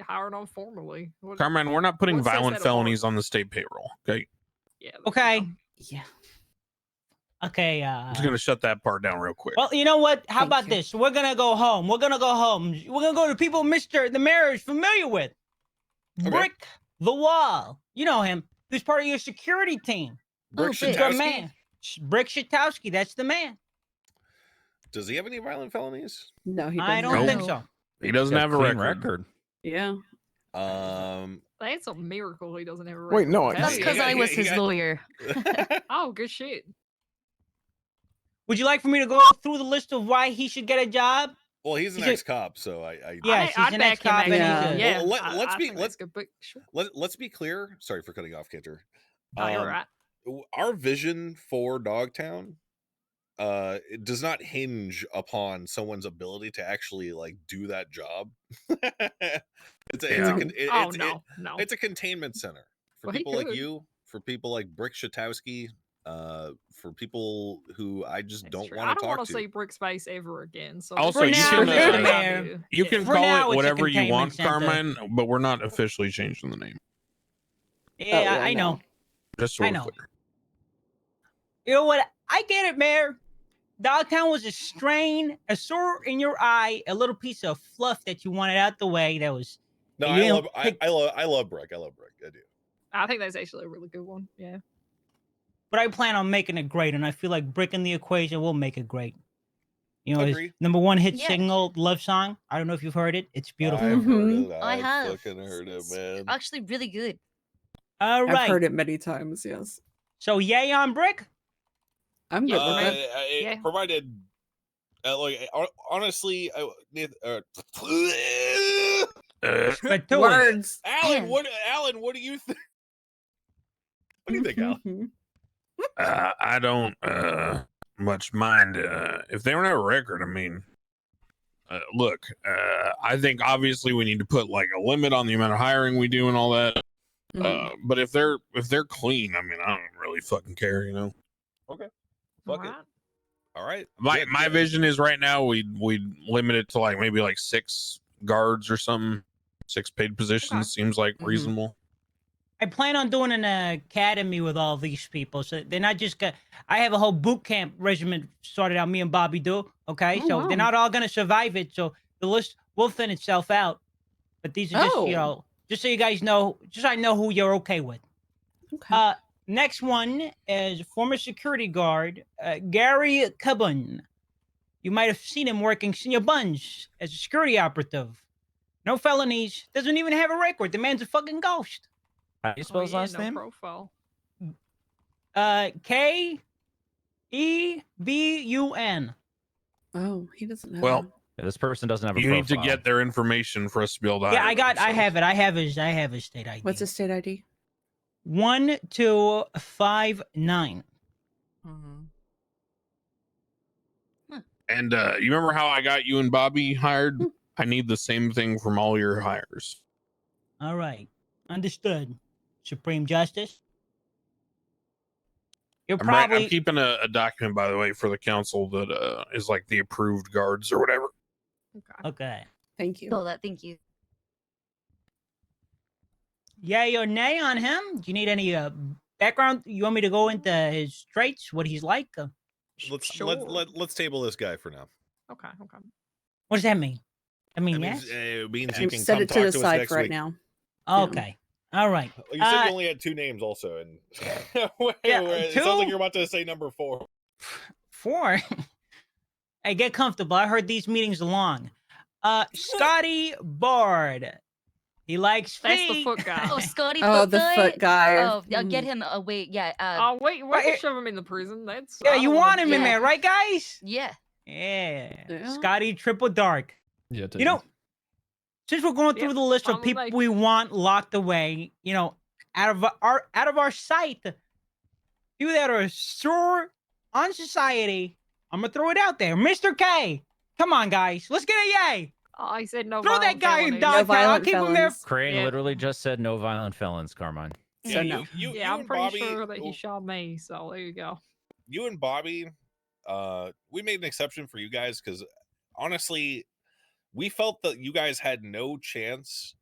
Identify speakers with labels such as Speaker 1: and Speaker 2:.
Speaker 1: hired on formally. What-
Speaker 2: Carmine, we're not putting
Speaker 1: What says
Speaker 2: violent
Speaker 1: that about-
Speaker 2: felonies on the state payroll. Okay,
Speaker 1: yeah, there you
Speaker 3: Okay.
Speaker 1: go.
Speaker 4: Yeah.
Speaker 3: Okay.
Speaker 2: I'm
Speaker 3: Uh,
Speaker 5: Ah.
Speaker 2: just gonna shut that part down real quick.
Speaker 3: well, you know what? How
Speaker 4: Thank
Speaker 3: about
Speaker 4: you.
Speaker 3: this? We're gonna go home. We're gonna go home. We're gonna go to people Mister the Mayor is familiar with.
Speaker 2: Okay.
Speaker 3: Brick the wall. You know him. He's part of your security team.
Speaker 4: Brick
Speaker 3: He's
Speaker 4: Shatowski?
Speaker 3: your man. Sh- Brick Shatowski. That's the man.
Speaker 5: Does he have any violent felonies?
Speaker 4: No, he doesn't.
Speaker 3: I don't
Speaker 2: Nope.
Speaker 3: think so.
Speaker 2: he doesn't
Speaker 6: Got
Speaker 2: have a
Speaker 6: clean
Speaker 2: record.
Speaker 4: Yeah.
Speaker 5: Um,
Speaker 1: That's a miracle he doesn't have a
Speaker 6: Wait,
Speaker 1: record.
Speaker 6: no,
Speaker 1: That's
Speaker 4: That's
Speaker 5: he
Speaker 4: because
Speaker 5: got-
Speaker 4: I
Speaker 5: he
Speaker 4: was
Speaker 5: got- he
Speaker 4: his
Speaker 5: got-
Speaker 4: lawyer.
Speaker 1: Oh, good shit.
Speaker 3: Would you like for me to go through the list of why he should get a job?
Speaker 5: well, he's an
Speaker 3: He's a-
Speaker 5: ex-cop, so I, I
Speaker 3: Yeah,
Speaker 1: I,
Speaker 3: she's
Speaker 1: I'd
Speaker 3: an
Speaker 1: back him.
Speaker 3: ex-cop
Speaker 1: actually.
Speaker 4: and
Speaker 1: Yeah,
Speaker 4: he's
Speaker 5: a- Well, let-
Speaker 1: I-
Speaker 5: let's
Speaker 1: I
Speaker 5: be-
Speaker 1: think
Speaker 5: let's-
Speaker 1: that's good, but sure.
Speaker 5: let, let's be clear. Sorry for cutting off, Cantor.
Speaker 1: Oh, you're
Speaker 5: Um,
Speaker 1: right.
Speaker 5: w- Our vision for Dogtown uh it does not hinge upon someone's ability to actually like do that job. it's a, it's a
Speaker 2: Yeah.
Speaker 5: con- it-
Speaker 1: Oh
Speaker 5: it's, it-
Speaker 1: no, no.
Speaker 5: it's a containment center for
Speaker 1: Well, he
Speaker 5: people like
Speaker 1: could.
Speaker 5: you, for people like Brick Shatowski, uh, for people who I just
Speaker 1: That's
Speaker 5: don't
Speaker 1: true.
Speaker 5: want
Speaker 1: I
Speaker 5: to
Speaker 1: don't
Speaker 5: talk
Speaker 1: want
Speaker 5: to.
Speaker 1: to see Brick Space ever again. So
Speaker 2: Also,
Speaker 1: for
Speaker 2: you
Speaker 1: now,
Speaker 2: can,
Speaker 1: that's
Speaker 2: uh,
Speaker 1: what I do.
Speaker 2: You
Speaker 1: Yeah.
Speaker 2: can
Speaker 3: For
Speaker 2: call
Speaker 3: now, it's
Speaker 2: it
Speaker 3: a
Speaker 2: whatever you
Speaker 3: containment
Speaker 2: want,
Speaker 3: center.
Speaker 2: Carmine, but we're not officially changing the name.
Speaker 3: Yeah,
Speaker 4: Oh, well,
Speaker 3: I
Speaker 4: no.
Speaker 3: know.
Speaker 2: Just so
Speaker 3: I
Speaker 2: we're
Speaker 3: know.
Speaker 2: clear.
Speaker 3: You know what? I get it, Mayor. Dogtown was a strain, a sore in your eye, a little piece of fluff that you wanted out the way. That was
Speaker 5: No,
Speaker 3: You
Speaker 5: I
Speaker 3: know,
Speaker 5: love, I,
Speaker 3: like-
Speaker 5: I love, I love Brick. I love Brick. I do.
Speaker 1: I think that's actually a really good one. Yeah.
Speaker 3: but I plan on making it great, and I feel like breaking the equation will make it great. You know, his
Speaker 5: Agree.
Speaker 3: number one hit
Speaker 7: Yeah.
Speaker 3: single, love song. I don't know if you've heard it. It's beautiful.
Speaker 5: I've heard
Speaker 4: Mhm.
Speaker 5: it.
Speaker 7: I
Speaker 5: I've
Speaker 7: have.
Speaker 5: fucking heard it,
Speaker 7: It's
Speaker 5: man.
Speaker 7: Actually, really good.
Speaker 3: All
Speaker 4: I've
Speaker 3: right.
Speaker 4: heard it many times. Yes.
Speaker 3: So yay on brick.
Speaker 4: I'm good
Speaker 5: Uh,
Speaker 4: with it.
Speaker 5: I- I- it
Speaker 1: Yeah.
Speaker 5: provided uh, like hon- honestly I, Nath- uh,
Speaker 2: Uh,
Speaker 3: But do it.
Speaker 4: Words.
Speaker 5: alan
Speaker 7: Man.
Speaker 5: what alan what do you think what do you think
Speaker 4: Mm-hmm.
Speaker 5: alan
Speaker 2: uh, I don't uh, much mind uh, if they don't have a record. I mean, uh, look, uh, I think obviously we need to put like a limit on the amount of hiring we do and all that.
Speaker 3: Mm-hmm.
Speaker 4: Mhm.
Speaker 2: Uh, but if they're if they're clean, I mean, I don't really fucking care, you know.
Speaker 5: Fuck it.
Speaker 1: Alright.
Speaker 5: all right
Speaker 2: My
Speaker 5: yeah,
Speaker 2: my
Speaker 5: yeah.
Speaker 2: vision is right now we we limit it to like maybe like six guards or something. Six paid positions seems like
Speaker 3: Mm-hmm.
Speaker 4: Mhm.
Speaker 2: reasonable.
Speaker 3: I plan on doing an academy with all these people, so they're not just. Gonna, I have a whole boot camp regiment started out. Me and Bobby do. Okay,
Speaker 4: Oh,
Speaker 3: so
Speaker 4: wow.
Speaker 3: they're not all gonna survive it. So the list will thin itself out. But these are just
Speaker 4: Oh.
Speaker 3: you know, just so you guys know, just so I know who you're okay with.
Speaker 4: Okay.
Speaker 3: Uh, next one is former security guard uh, Gary Cubbon. You might have seen him working senior buns as a security operative. No felonies. Doesn't even have a record. The man's a fucking ghost.
Speaker 6: How do you spell
Speaker 1: Oh,
Speaker 6: his
Speaker 1: yeah,
Speaker 6: last
Speaker 1: no
Speaker 6: name?
Speaker 1: Profile.
Speaker 3: Uh, K E B U N.
Speaker 4: oh, he doesn't have.
Speaker 2: Well,
Speaker 6: Yeah, this person doesn't have a
Speaker 2: You need to
Speaker 6: profile.
Speaker 2: get their information for us to be able to.
Speaker 3: Yeah,
Speaker 2: hire
Speaker 3: I got.
Speaker 2: them,
Speaker 3: I
Speaker 2: so-
Speaker 3: have it. I have his. I have his state ID.
Speaker 4: what's his state ID?
Speaker 3: One two five nine.
Speaker 2: And uh, you remember how I got you and Bobby hired? I need the same thing from all your hires.
Speaker 3: All right, understood. Supreme Justice. You're
Speaker 2: I'm, right,
Speaker 3: probably
Speaker 2: I'm keeping a, a document, by the way, for the council that uh, is like the approved guards or whatever.
Speaker 1: Okay.
Speaker 3: okay.
Speaker 4: Thank you.
Speaker 7: Saw that. Thank you.
Speaker 3: Yay or nay on him? Do you need any uh, background? You want me to go into his traits, what he's like? Uh,
Speaker 5: let's
Speaker 1: Sure.
Speaker 5: let, let, let's table this guy for now
Speaker 1: Okay. Okay.
Speaker 3: what does that mean? I mean,
Speaker 5: That means,
Speaker 3: yes.
Speaker 5: uh, it means
Speaker 4: You
Speaker 5: you can
Speaker 4: set
Speaker 5: come
Speaker 4: it to
Speaker 5: talk
Speaker 4: the
Speaker 5: us
Speaker 4: side
Speaker 5: next
Speaker 4: for right
Speaker 5: week.
Speaker 4: now.
Speaker 3: okay. All right.
Speaker 5: Well, you said
Speaker 3: Uh,
Speaker 5: you only had two names also and Wait,
Speaker 3: Yeah,
Speaker 5: wait, it sounds like
Speaker 3: two?
Speaker 5: you're about to say number four
Speaker 3: Four. hey, get comfortable. I heard these meetings are long. Uh, Scotty Bard. He likes
Speaker 1: That's the
Speaker 3: feet.
Speaker 1: foot guy.
Speaker 7: Oh, Scotty.
Speaker 4: Oh, the
Speaker 7: Footfoot.
Speaker 4: foot guy.
Speaker 3: uh,
Speaker 7: Oh, yeah,
Speaker 4: Mhm.
Speaker 7: get him away. Yeah. Uh,
Speaker 1: Oh wait, wait!
Speaker 3: Right.
Speaker 1: to shove him in the prison. That's
Speaker 3: Yeah,
Speaker 1: I
Speaker 3: you
Speaker 1: don't
Speaker 3: want him in
Speaker 7: yeah.
Speaker 3: there, right, guys?
Speaker 7: yeah.
Speaker 3: Yeah.
Speaker 4: Yeah.
Speaker 3: Scotty Triple Dark.
Speaker 6: Yeah,
Speaker 3: You know, since we're going through
Speaker 1: Yep,
Speaker 3: the list of
Speaker 1: I'm
Speaker 3: people
Speaker 1: like-
Speaker 3: we want locked away, you know, out of our out of our sight, people that are sore on society, I'm gonna throw it out there. Mr. K, come on, guys, let's get a yay.
Speaker 1: Oh, he said no.
Speaker 3: throw that
Speaker 1: violent
Speaker 3: guy in
Speaker 1: felonies.
Speaker 3: dogtown. I'll
Speaker 4: violent
Speaker 3: keep him there.
Speaker 4: felons.
Speaker 6: Crane
Speaker 1: Yeah.
Speaker 6: literally just said no violent felons, Carmine.
Speaker 4: So
Speaker 5: you,
Speaker 4: no.
Speaker 5: you, you
Speaker 1: Yeah, I'm
Speaker 5: and
Speaker 1: pretty
Speaker 5: Bobby-
Speaker 1: sure that he
Speaker 5: w-
Speaker 1: shot me. So there you go.
Speaker 5: you and Bobby, uh, we made an exception for you guys because honestly, we felt that you guys had no chance